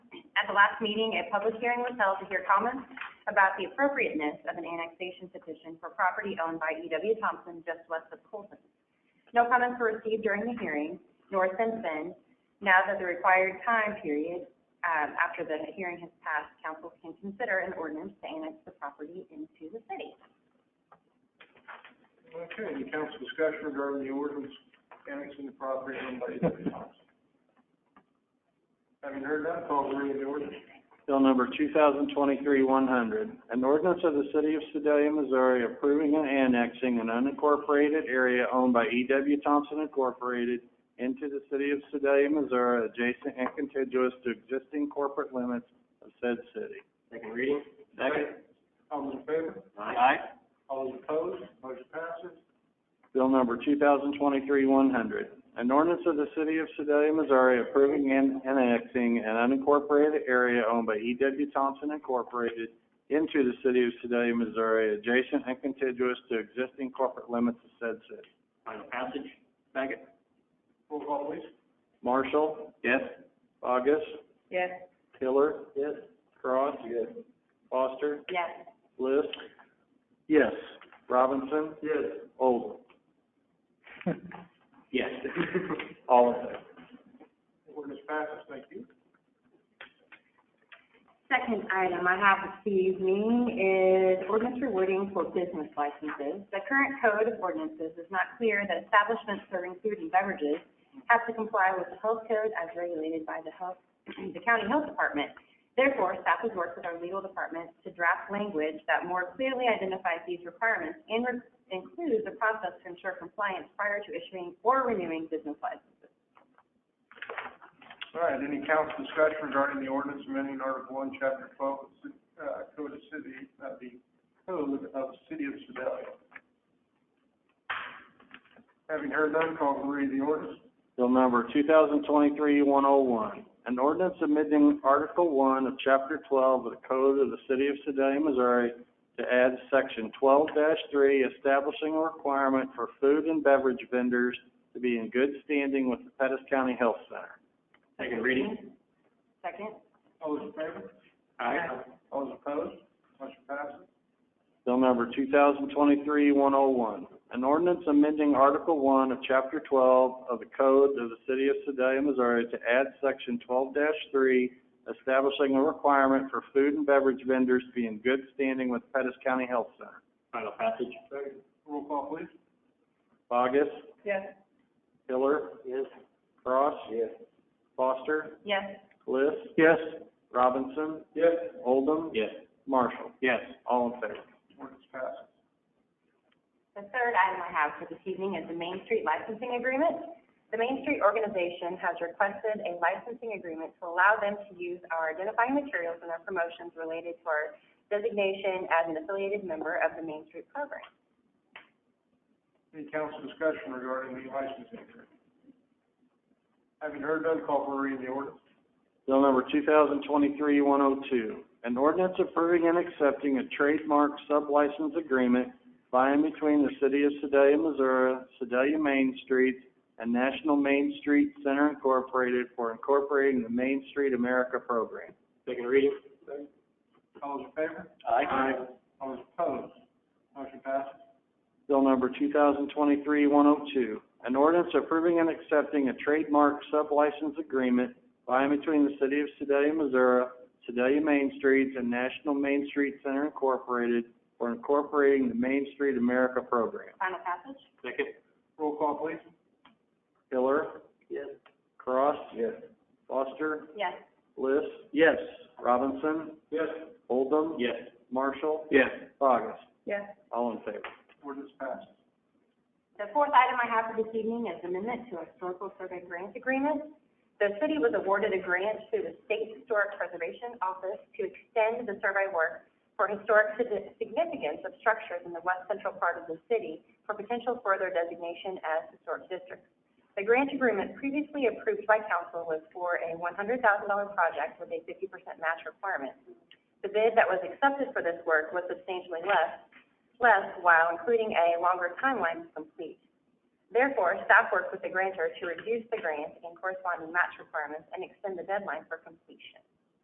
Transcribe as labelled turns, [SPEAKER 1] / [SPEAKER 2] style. [SPEAKER 1] the last meeting, a public hearing was held to hear comments about the appropriateness of an annexation petition for property owned by E. W. Thompson just west of Colton. No comments were received during the hearing, nor since then. Now that the required time period, um, after the hearing has passed, council can consider an ordinance to annex the property into the city.
[SPEAKER 2] Okay, any council discussion regarding the ordinance annexing the property owned by E.W. Thompson? Having heard that, call the reading of the ordinance.
[SPEAKER 3] Bill number two thousand twenty-three one hundred, an ordinance of the city of Sedalia, Missouri approving and annexing an unincorporated area owned by E. W. Thompson Incorporated into the city of Sedalia, Missouri, adjacent and contiguous to existing corporate limits of said city.
[SPEAKER 2] Second reading. Second. All those in favor?
[SPEAKER 3] Aye.
[SPEAKER 2] All those opposed? Motion passes.
[SPEAKER 3] Bill number two thousand twenty-three one hundred, an ordinance of the city of Sedalia, Missouri approving and annexing an unincorporated area owned by E. W. Thompson Incorporated into the city of Sedalia, Missouri, adjacent and contiguous to existing corporate limits of said city.
[SPEAKER 2] Final passage. Second. Roll call, please.
[SPEAKER 3] Marshall?
[SPEAKER 2] Yes.
[SPEAKER 3] August?
[SPEAKER 1] Yes.
[SPEAKER 3] Hiller?
[SPEAKER 2] Yes.
[SPEAKER 3] Cross? Foster?
[SPEAKER 1] Yes.
[SPEAKER 3] Bliss? Yes. Robinson?
[SPEAKER 2] Yes.
[SPEAKER 3] Olden?
[SPEAKER 2] Yes.
[SPEAKER 3] All in favor?
[SPEAKER 2] Ordinance passes, thank you.
[SPEAKER 1] Second item I have this evening is ordinance rewarding for business licenses. The current code of ordinances is not clear that establishments serving food and beverages have to comply with the health code as regulated by the health, the county health department. Therefore, staff has worked with our legal department to draft language that more clearly identifies these requirements and re- includes a process to ensure compliance prior to issuing or renewing business licenses.
[SPEAKER 2] All right, any council discussion regarding the ordinance amending Article One, Chapter twelve, of the ci- uh, Code of City, uh, the Code of City of Sedalia? Having heard none, call for read of the ordinance.
[SPEAKER 3] Bill number 2023-101, an ordinance amending Article 1 of Chapter 12 of the Code of the City of Sedalia, Missouri to add Section 12-3 establishing a requirement for food and beverage vendors to be in good standing with the Pettis County Health Center.
[SPEAKER 2] Second reading.
[SPEAKER 1] Second?
[SPEAKER 2] All those in favor?
[SPEAKER 1] Aye.
[SPEAKER 2] All those opposed? Motion passes.
[SPEAKER 3] Bill number 2023-101, an ordinance amending Article 1 of Chapter 12 of the Code of the City of Sedalia, Missouri to add Section 12-3, establishing a requirement for food and beverage vendors to be in good standing with Pettis County Health Center.
[SPEAKER 2] Final passage. Second. Roll call, please.
[SPEAKER 3] Bogus?
[SPEAKER 1] Yes.
[SPEAKER 3] Hiller? Yes. Cross?
[SPEAKER 2] Yes.
[SPEAKER 3] Foster?
[SPEAKER 1] Yes.
[SPEAKER 3] Bliss? Yes. Robinson?
[SPEAKER 2] Yes.
[SPEAKER 3] Oldham?
[SPEAKER 2] Yes.
[SPEAKER 3] Marshall?
[SPEAKER 2] Yes.
[SPEAKER 3] All in favor?
[SPEAKER 2] Ordinance passes.
[SPEAKER 1] The third item I have for this evening is the Main Street licensing agreement. The Main Street organization has requested a licensing agreement to allow them to use our identifying materials in their promotions related to our designation as an affiliated member of the Main Street program.
[SPEAKER 2] Any council discussion regarding the licensing agreement? Having heard none, call for read of the ordinance.
[SPEAKER 3] Bill number 2023-102, an ordinance approving and accepting a trademark sublicense agreement by and between the City of Sedalia, Missouri, Sedalia Main Street, and National Main Street Center Incorporated for incorporating the Main Street America program.
[SPEAKER 2] Second reading. All those in favor? Aye. All those opposed? Motion passes.
[SPEAKER 3] Bill number 2023-102, an ordinance approving and accepting a trademark sublicense agreement by and between the City of Sedalia, Missouri, Sedalia Main Streets, and National Main Street Center Incorporated for incorporating the Main Street America program.
[SPEAKER 1] Final passage?
[SPEAKER 2] Second. Roll call, please.
[SPEAKER 3] Hiller?
[SPEAKER 2] Yes.
[SPEAKER 3] Cross?
[SPEAKER 2] Yes.
[SPEAKER 3] Foster?
[SPEAKER 1] Yes.
[SPEAKER 3] Bliss? Yes. Robinson?
[SPEAKER 2] Yes.
[SPEAKER 3] Oldham?
[SPEAKER 2] Yes.
[SPEAKER 3] Marshall?
[SPEAKER 2] Yes.
[SPEAKER 3] Bogus?
[SPEAKER 1] Yes.
[SPEAKER 3] All in favor?
[SPEAKER 2] Ordinance passes.
[SPEAKER 1] The fourth item I have for this evening is amendment to a historical survey grant agreement. The city was awarded a grant through the State Historic Preservation Office to extend the survey work for historic sig- significance of structures in the west central part of the city for potential further designation as historic districts. The grant agreement previously approved by council was for a one hundred thousand dollar project with a fifty percent match requirement. The bid that was accepted for this work was substantially less, less while including a longer timeline to complete. Therefore, staff worked with the grantor to reduce the grant and corresponding match requirements and extend the deadline for completion.